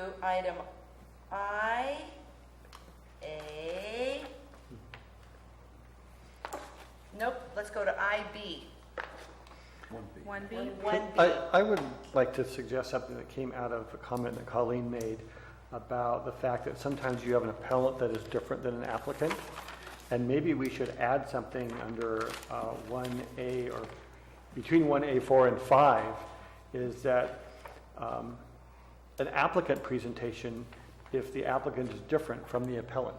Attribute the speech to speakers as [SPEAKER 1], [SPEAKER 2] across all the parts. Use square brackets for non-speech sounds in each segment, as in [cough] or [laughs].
[SPEAKER 1] to item I, A. Nope, let's go to IB,
[SPEAKER 2] One B.
[SPEAKER 3] One B?
[SPEAKER 1] 1B.
[SPEAKER 4] I, I would like to suggest something that came out of a comment that Colleen made about the fact that sometimes you have an appellant that is different than an applicant. And maybe we should add something under uh, 1A or between 1A4 and 5 is that um, an applicant presentation, if the applicant is different from the appellant,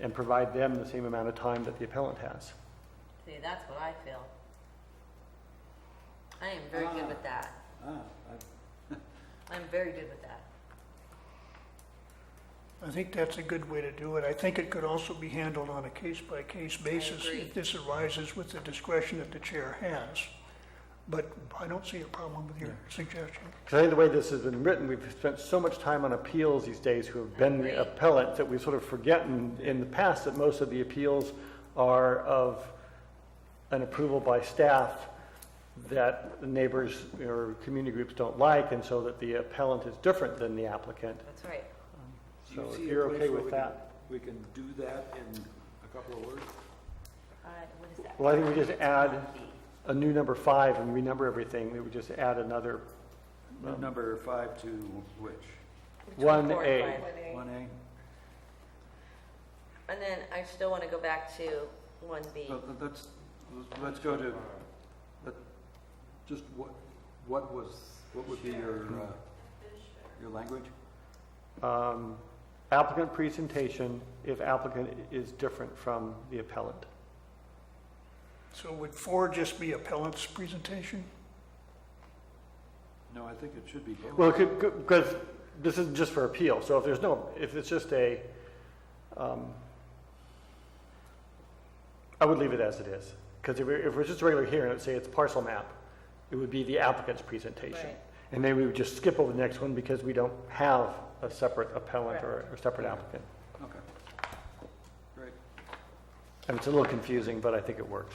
[SPEAKER 4] and provide them the same amount of time that the appellant has.
[SPEAKER 5] See, that's what I feel. I am very good with that.
[SPEAKER 2] Ah, I-
[SPEAKER 5] I'm very good with that.
[SPEAKER 6] I think that's a good way to do it. I think it could also be handled on a case-by-case basis
[SPEAKER 5] agree.
[SPEAKER 6] if this arises with the discretion that the chair has. But I don't see a problem with your suggestion.
[SPEAKER 4] Because I think the way this has been written, we've spent so much time on appeals these days who have been the appellant that we've sort of forgotten in the past that most of the appeals are of an approval by staff that the neighbors or community groups don't like, and so that the appellant is different than the applicant.
[SPEAKER 5] That's right.
[SPEAKER 2] do you
[SPEAKER 4] So if
[SPEAKER 2] see a
[SPEAKER 4] you're
[SPEAKER 2] place
[SPEAKER 4] okay
[SPEAKER 2] where
[SPEAKER 4] with
[SPEAKER 2] we can-
[SPEAKER 4] that.
[SPEAKER 2] We can do that in a couple of words?
[SPEAKER 1] I- What is that?
[SPEAKER 4] Well, I think we just add
[SPEAKER 1] 1B.
[SPEAKER 4] a new number five and renumber everything, we would just add another
[SPEAKER 2] Number five to which?
[SPEAKER 4] one
[SPEAKER 5] Four and
[SPEAKER 4] A.
[SPEAKER 5] five.
[SPEAKER 2] One A?
[SPEAKER 5] And then I still want to go back to one B.
[SPEAKER 2] Let- let- Let's, let's go to, let- just what, what was, what would be your, uh, your language?
[SPEAKER 4] um, applicant presentation if applicant is different from the appellant.
[SPEAKER 6] So would four just be appellant's presentation?
[SPEAKER 2] No, I think it should be both.
[SPEAKER 4] Well, because this is just for appeal, so if there's no, if it's just a, um, I would leave it as it is. Because if it was just a regular hearing, let's say it's parcel map, it would be the applicant's presentation.
[SPEAKER 5] Right.
[SPEAKER 4] And then we would just skip over the next one because we don't have a separate appellant or or separate applicant.
[SPEAKER 2] Okay. Great.
[SPEAKER 4] And it's a little confusing, but I think it works.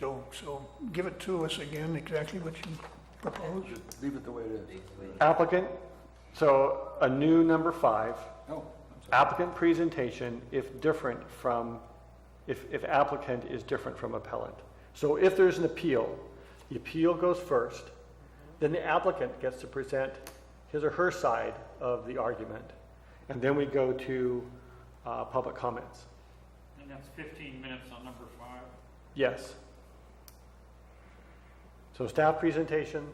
[SPEAKER 6] So, so give it to us again, exactly what you propose.
[SPEAKER 2] Just leave it the way it is.
[SPEAKER 4] Applicant, so a new number five,
[SPEAKER 2] Oh, I'm sorry.
[SPEAKER 4] applicant presentation if different from, if, if applicant is different from appellant. So if there's an appeal, the appeal goes first, then the applicant gets to present his or her side of the argument. And then we go to, uh, public comments.
[SPEAKER 7] And that's 15 minutes on number five.
[SPEAKER 4] Yes. So staff presentation,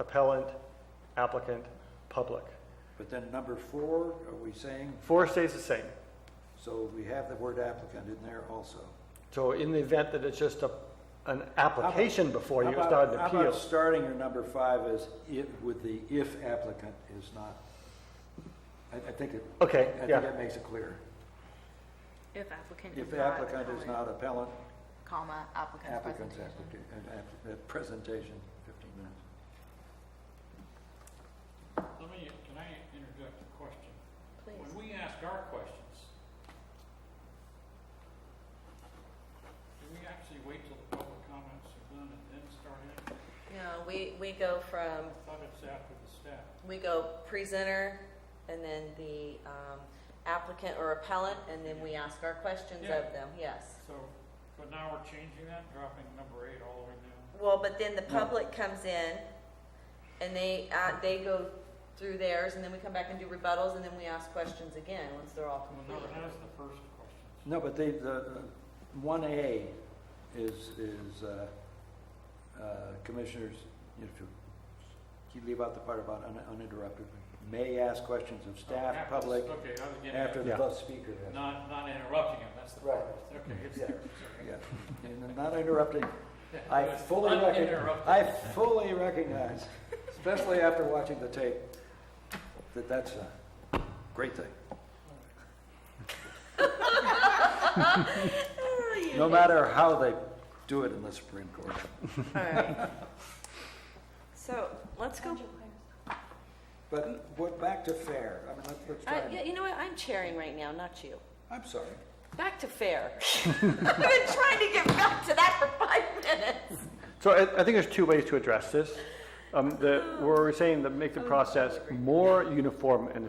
[SPEAKER 4] appellant, applicant, public.
[SPEAKER 2] But then number four, are we saying,
[SPEAKER 4] Four stays the same.
[SPEAKER 2] so we have the word applicant in there also?
[SPEAKER 4] So in the event that it's just a, an application before you,
[SPEAKER 2] How
[SPEAKER 4] it's
[SPEAKER 2] about-
[SPEAKER 4] not an
[SPEAKER 2] How about
[SPEAKER 4] appeal.
[SPEAKER 2] starting your number five as if, with the if applicant is not? I, I think it,
[SPEAKER 4] Okay,
[SPEAKER 2] I think
[SPEAKER 4] yeah,
[SPEAKER 2] that makes it clear.
[SPEAKER 3] If applicant is
[SPEAKER 2] If
[SPEAKER 3] not.
[SPEAKER 2] applicant is
[SPEAKER 3] appellant.
[SPEAKER 2] not appellant,
[SPEAKER 5] Comma, applicant's
[SPEAKER 2] applicant's application, presentation, 15 minutes.
[SPEAKER 7] Let me, can I interject a question?
[SPEAKER 5] Please.
[SPEAKER 7] When we ask our questions, do we actually wait till the public comments are done and then start it?
[SPEAKER 5] No, we, we go from,
[SPEAKER 7] I thought it's after the staff.
[SPEAKER 5] we go presenter and then the um, applicant or appellant, and then we ask our questions
[SPEAKER 7] Yeah.
[SPEAKER 5] of them, yes.
[SPEAKER 7] So, but now we're changing that, dropping number eight all the way down.
[SPEAKER 5] Well, but then the public comes in and they, uh, they go through theirs and then we come back and do rebuttals and then we ask questions again once they're all
[SPEAKER 7] Well,
[SPEAKER 5] complete.
[SPEAKER 7] no, that is the first question.
[SPEAKER 2] No, but they, the, one A is, is, uh, uh, commissioners, you know, if you leave out the part about un- uninterrupted, may ask questions of staff,
[SPEAKER 7] After-
[SPEAKER 2] public,
[SPEAKER 7] Okay, I was getting,
[SPEAKER 2] after
[SPEAKER 7] at
[SPEAKER 2] the
[SPEAKER 4] Yeah.
[SPEAKER 2] bus speaker.
[SPEAKER 7] not, not interrupting him, that's the
[SPEAKER 2] Right.
[SPEAKER 7] part. Okay, it's
[SPEAKER 2] Yeah.
[SPEAKER 7] there, sorry.
[SPEAKER 2] Yeah, and not interrupting. I
[SPEAKER 7] It's
[SPEAKER 2] fully recognize,
[SPEAKER 7] [laughs] uninterrupted.
[SPEAKER 2] I fully recognize, especially after watching the tape, that that's a great thing.
[SPEAKER 5] Ah,
[SPEAKER 2] No matter how they do it in the Supreme Court.
[SPEAKER 5] All right. So, let's go,
[SPEAKER 2] But what, back to fair, I mean, let's, let's try.
[SPEAKER 5] I,
[SPEAKER 2] and-
[SPEAKER 5] Uh, yeah, you know what, I'm chairing right now, not you.
[SPEAKER 2] I'm sorry.
[SPEAKER 5] Back to fair. [laughs] I've been trying to get back to that for five minutes.
[SPEAKER 4] So I, I think there's two ways to address this. Um, the, we're saying to make the process more uniform and